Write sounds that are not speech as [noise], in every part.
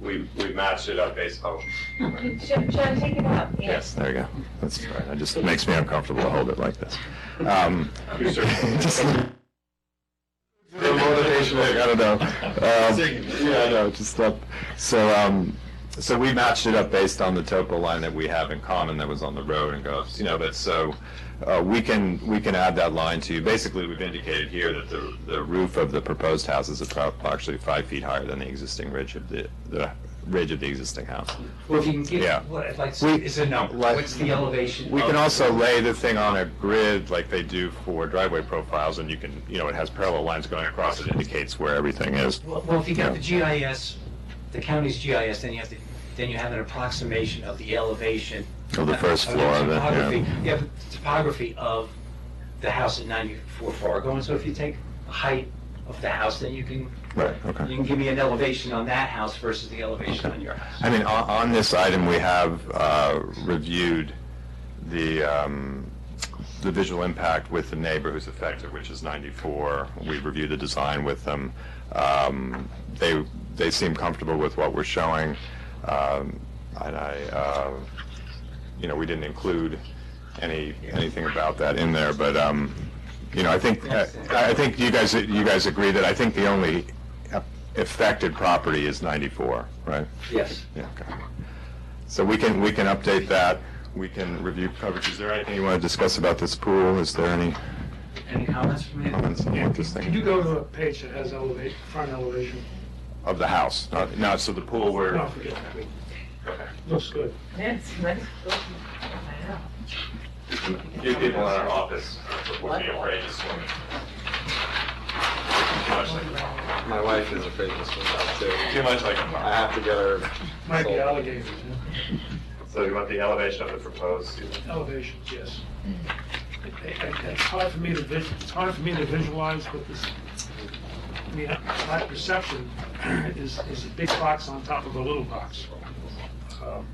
we, we matched it up based on. [laughs] Should, should I take it up? Yes. There you go. That's fine. It just makes me uncomfortable to hold it like this. Um, You're certain? [laughs] just- The motivation, like, I don't know. Um, yeah, I know, just stuff. So, um, so we matched it up based on the topo line that we have in common that was on the road and goes, you know, but so, uh, we can, we can add that line to, basically, we've indicated here that the, the roof of the proposed house is appro- actually five feet higher than the existing ridge of the, the ridge of the existing house. Well, if you can Yeah. give, what, like, We- is a number, like- what's the elevation? We of- can also lay the thing on a grid like they do for driveway profiles, and you can, you know, it has parallel lines going across, it indicates where everything is. Well, well, if you got the GIS, the county's GIS, then you have to, then you have an approximation of the elevation. Of the first of floor of it, yeah. topography- You have the topography of the house at 94 Fargo, and so if you take the height of the house, then you can, Right, you can give me an elevation on that house versus the elevation Okay. on your house. I mean, on, on this item, we have uh, reviewed the, um, the visual impact with the neighbor who's affected, which is 94. We reviewed the design with them. Um, They, they seem comfortable with what we're showing. Um, And I, uh, you know, we didn't include any, anything about that in there, but, um, you know, I think, I I think you guys, you guys agree that I think the only affected property is 94, right? Yes. Yeah, okay. So we can, we can update that, we can review coverage. Is there anything you want to discuss about this pool? Is there any Any comments from you? comments on what this Could you thing? go to the page that has elevation, front elevation? Of the house, not, not, so the pool No, where, forget that. Looks good. Yes, let's go. Give people in our office would be afraid to swim. Too much like, My wife is afraid to swim out too. too much like, I have to get her. Might be sold. alligators, so you want the elevation of the proposed, yeah. elevations, yes. It- it- It's hard for me to vis, it's hard for me to visualize what this, I mean, my perception is, is a big box on top of a little box. Um,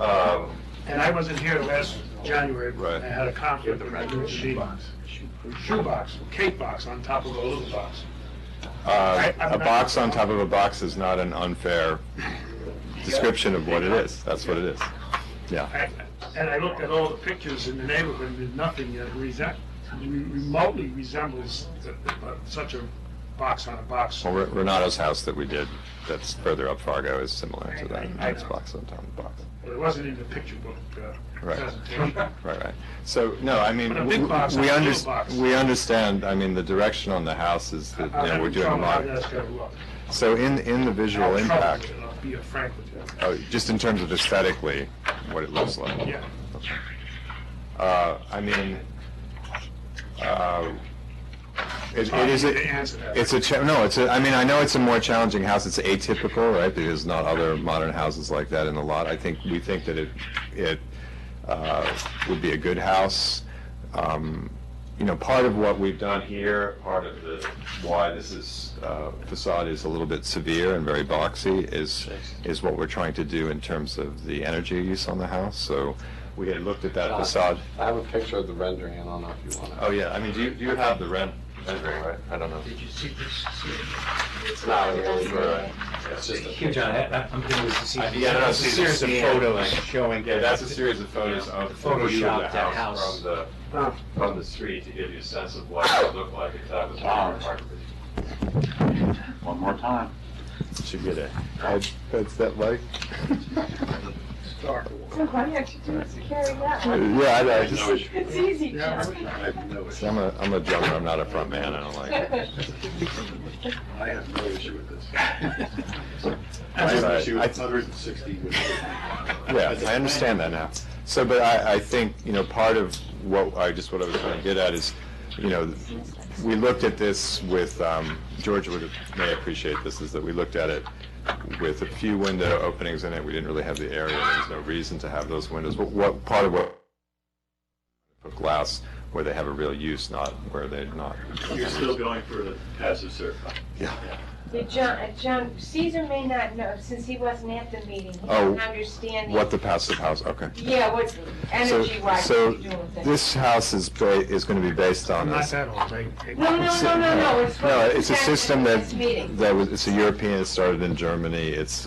um, And I wasn't here last January, Right. I had a conflict with my little shoebox. Shoebox, cake box on top of a little box. uh, I- I'm a not- box on top of a box is not an unfair description of what it is. That's what it is. Yeah. I- And I looked at all the pictures in the neighborhood, and there's nothing that resem- remotely resembles the- the- such a box on a box. Well, Re- Renato's house that we did, that's further up Fargo, is similar to that. I- I- It's box on top of box. It wasn't in the picture book uh, Right. [laughs] presentation. Right, right. So, no, I mean, But a we, big box we and a little unders- box. we understand, I mean, the direction on the house is that, I'm you know, we're having doing a trouble how lot. that's gonna look. So in, in the I have visual trouble impact, with it, I'll be frank with you. oh, just in terms of aesthetically, what it looks like. Yeah. Uh, I mean, uh, it it is, I'll a- answer that. it's a, cha- no, it's a, I mean, I know it's a more challenging house, it's atypical, right? There's not other modern houses like that in the lot. I think, we think that it, it uh, would be a good house. Um, You know, part of what we've done here, part of the, why this is, uh, facade is a little bit severe and very boxy, is, is what we're trying to do in terms of the energy use on the house. So we had looked at that facade. I have a picture of the rendering, I don't know if you want it. Oh, yeah, I mean, do you, do you have the rent rendering, right? I don't know. Did you see this? It's not really, good. it's just a. Here, John, I- I- I'm doing this to see. Yeah, no, no, see, It's a this series of is- photos showing. yeah, that's a series of photos Yeah. of the Photoshop view of the that house house. from the, Oh. from the street to give you a sense of what it would look like if that was our apartment. Should get a head, headset light. So why don't you just carry [laughs] that Uh, Yeah, I one? know, I just, It's easy. Yeah, John. [laughs] I'm a, I'm a drummer, I'm not a front man, I don't like it. I have no issue with this. I Right, have an right. issue I- with 160. with- Yeah, I understand that now. So, but I, I think, you know, part of what, I just, what I was trying to get at is, you know, we looked at this with, um, George would, may appreciate this, is that we looked at it with a few window openings in it, we didn't really have the area, there was no reason to have those windows, but what, part of what, of glass, where they have a real use, not where they're not. You're still going for the passive certified. Yeah. So John, uh, John, Caesar may not know, since he wasn't at the meeting, he Oh, doesn't understand. the- What the passive house, okay. Yeah, what's So, energy wise, what so you're doing with it. this house is, ba- is gonna be based on I'm this. not that old, right? No, no, no, no, no, it's. No, it's a system that, This meeting. that was, it's a European, it started in Germany, it's,